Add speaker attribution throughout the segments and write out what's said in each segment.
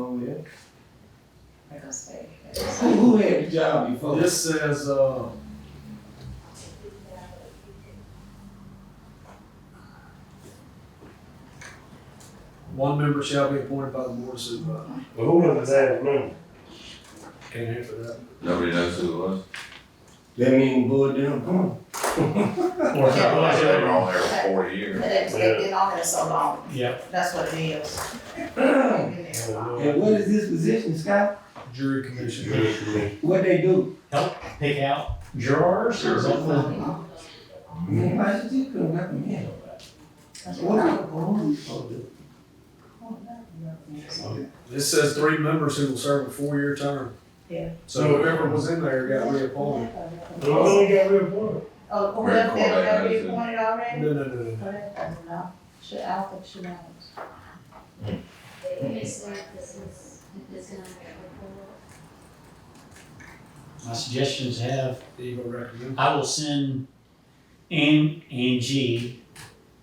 Speaker 1: on there.
Speaker 2: That's
Speaker 1: Who, who had the job before?
Speaker 3: This says, uh, one member shall be appointed by the board of supervisors.
Speaker 4: Well, who was the last member?
Speaker 3: Can't answer that.
Speaker 5: Nobody knows who it was.
Speaker 1: That mean boy down, come on.
Speaker 5: They were on there for forty years.
Speaker 2: But it's, it's been on there so long,
Speaker 3: Yep.
Speaker 2: that's what it is. It's been there so long.
Speaker 1: And what is this position, Scott?
Speaker 3: Jury commission.
Speaker 1: What they do?
Speaker 6: pick out jurors or something.
Speaker 1: Man, why should you couldn't recommend? What are the police supposed to do?
Speaker 3: This says three members who will serve a four-year term.
Speaker 2: Yeah.
Speaker 3: So whoever was in there got reappointed.
Speaker 4: The only guy we appointed.
Speaker 2: Oh, who left there, that we appointed already?
Speaker 3: No, no, no, no.
Speaker 2: Who left there? No. Should, I don't think she knows.
Speaker 7: It's like this is, this is not a
Speaker 6: My suggestions have,
Speaker 3: Eva recommend.
Speaker 6: I will send N and G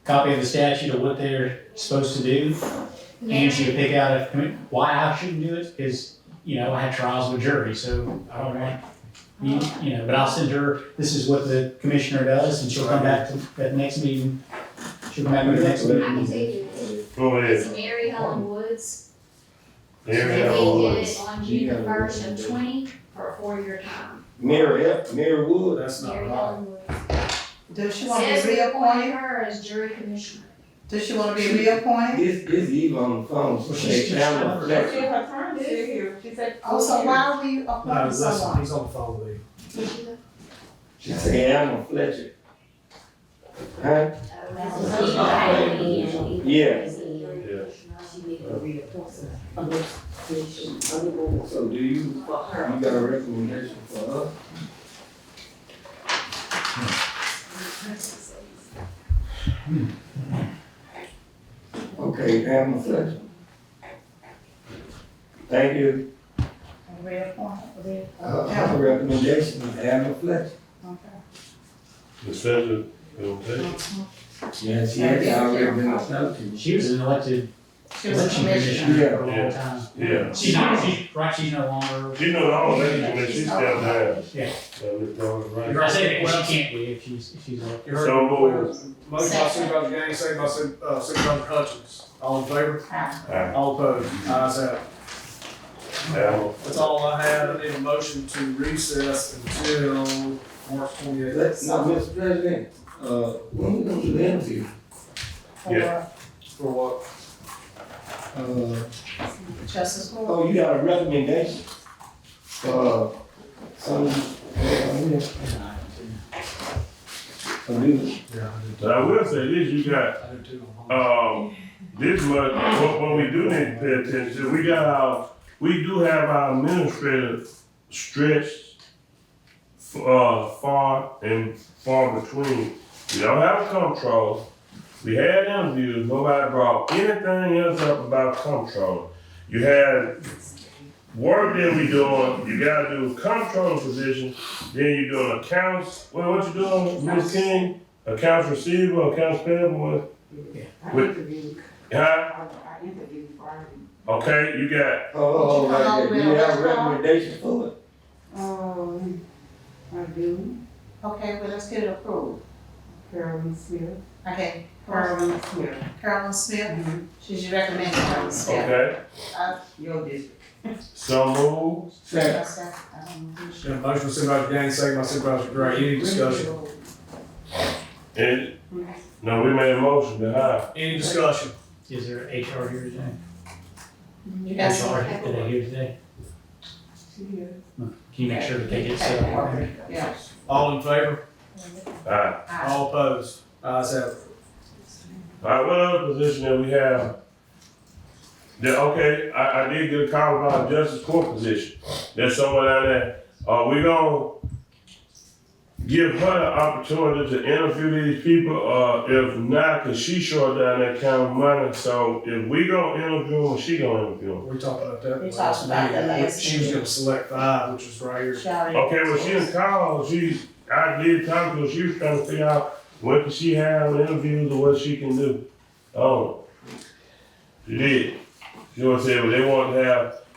Speaker 6: copy of the statute of what they're supposed to do. And she would pick out if, I mean, why I shouldn't do it is, you know, I had trials with jury, so I don't want, you, you know, but I'll send her, this is what the commissioner does, and she'll come back to that next meeting. She'll come back to the next
Speaker 7: I can
Speaker 6: meeting.
Speaker 7: tell you, this.
Speaker 4: Who
Speaker 7: it's
Speaker 4: is?
Speaker 7: Mary Helen Woods.
Speaker 4: Mary
Speaker 7: They
Speaker 4: Ellen
Speaker 7: did
Speaker 4: Woods.
Speaker 7: it on June the first of twenty for a four-year term.
Speaker 1: Mary, F- Mary Wood,
Speaker 3: That's not
Speaker 7: Mary
Speaker 3: right.
Speaker 7: Helen Woods.
Speaker 2: Does she wanna
Speaker 7: Says
Speaker 2: be
Speaker 7: we appointed
Speaker 2: reappointed?
Speaker 7: her as jury commissioner.
Speaker 2: Does she wanna be reappointed?
Speaker 1: this, this Eva on the phone, so
Speaker 6: She's
Speaker 1: she down the
Speaker 6: just-
Speaker 1: flex.
Speaker 8: her term is here. She said.
Speaker 2: Oh, so why are we
Speaker 3: No,
Speaker 2: appointing
Speaker 3: listen,
Speaker 2: someone?
Speaker 3: he's on the phone with you.
Speaker 1: She said, I'm a Fletcher. Huh? Yeah. So do you, you got a recommendation for her? Okay, Alma Fletcher. Thank you. Uh,
Speaker 2: Reappointed, re-
Speaker 1: I have a recommendation, Alma Fletcher.
Speaker 2: okay.
Speaker 4: The seven, okay.
Speaker 1: Yeah, she has already been appointed.
Speaker 6: She was an elected
Speaker 2: She was a
Speaker 6: election
Speaker 2: commissioner.
Speaker 6: commissioner for a long time.
Speaker 4: Yeah.
Speaker 6: She's not, she's, right, she's no longer,
Speaker 4: You know, all that, I mean, she's still there.
Speaker 6: Yeah.
Speaker 4: So, Miss Dawn, right?
Speaker 6: I say that, she can't be if she's, if she's elected.
Speaker 3: You heard
Speaker 4: So
Speaker 3: the
Speaker 4: moved.
Speaker 3: motion by Supervisor Gaines, second by Su- uh, Supervisor Hutchins. All in favor?
Speaker 4: Aye.
Speaker 3: All opposed? Ayes have it.
Speaker 4: Allen.
Speaker 3: That's all I have. I need a motion to recess until March twenty-eighth.
Speaker 1: Let's, now, Mr. President, uh, when we gonna do the interview?
Speaker 2: For
Speaker 3: For what?
Speaker 1: Uh,
Speaker 2: Justice Moore.
Speaker 1: oh, you got a recommendation? Uh, some, uh, I do.
Speaker 3: Yeah,
Speaker 4: I will say this, you got
Speaker 3: I do too.
Speaker 4: Um, this what, what, what we do need to pay attention, to, we got our, we do have our administrative stretched uh, far and far between. We don't have control. We had interviews, nobody brought anything else up about control. You had work that we doing, you gotta do control position, then you doing accounts, what, what you doing, Ms. King? Accounts receivable, accounts payable, what?
Speaker 8: I
Speaker 4: With-
Speaker 8: interviewed,
Speaker 4: Huh?
Speaker 8: I I interviewed Barney.
Speaker 4: Okay, you got,
Speaker 1: Oh, right, there. you have a
Speaker 2: Would you call
Speaker 1: recommendation for it?
Speaker 8: Um, I do,
Speaker 2: Okay, well, let's get it approved.
Speaker 8: Carolyn Smith,
Speaker 2: Okay, Carolyn,
Speaker 8: Carolyn Smith.
Speaker 2: Carolyn Smith,
Speaker 8: Mhm.
Speaker 2: Mm-hmm. should you recommend Carolyn Smith?
Speaker 4: okay,
Speaker 2: Uh,
Speaker 8: Your district.
Speaker 4: so move,
Speaker 1: Second.
Speaker 2: that's that, I don't know who she-
Speaker 3: Got a motion by Supervisor Gaines, second by Supervisor Gray. Any discussion?
Speaker 4: and, no, we made a motion to hire.
Speaker 3: Any discussion?
Speaker 6: Is there HR here today?
Speaker 2: You got
Speaker 6: HR,
Speaker 2: some
Speaker 6: are they
Speaker 2: paperwork?
Speaker 6: here today?
Speaker 8: She is.
Speaker 6: Can you make sure that they get set up?
Speaker 2: Yeah.
Speaker 3: All in favor?
Speaker 4: Alright,
Speaker 2: Aye.
Speaker 3: All opposed? Ayes have it.
Speaker 4: alright, what other position that we have? That, okay, I, I did get a call about a justice court position, there's someone out there, uh, we gonna give her the opportunity to interview these people, uh, if not, cause she short down that kind of money, so if we gonna interview them, she gonna interview them.
Speaker 3: We talked about that.
Speaker 2: We
Speaker 3: last
Speaker 2: talked about that
Speaker 3: meeting.
Speaker 2: last
Speaker 3: She was gonna select five, which is right here.
Speaker 2: She already-
Speaker 4: Okay, well, she was called, she, I did talk to her, she was trying to figure out what can she have, interviews or what she can do. Oh. She did. You know what I'm saying? But they want to have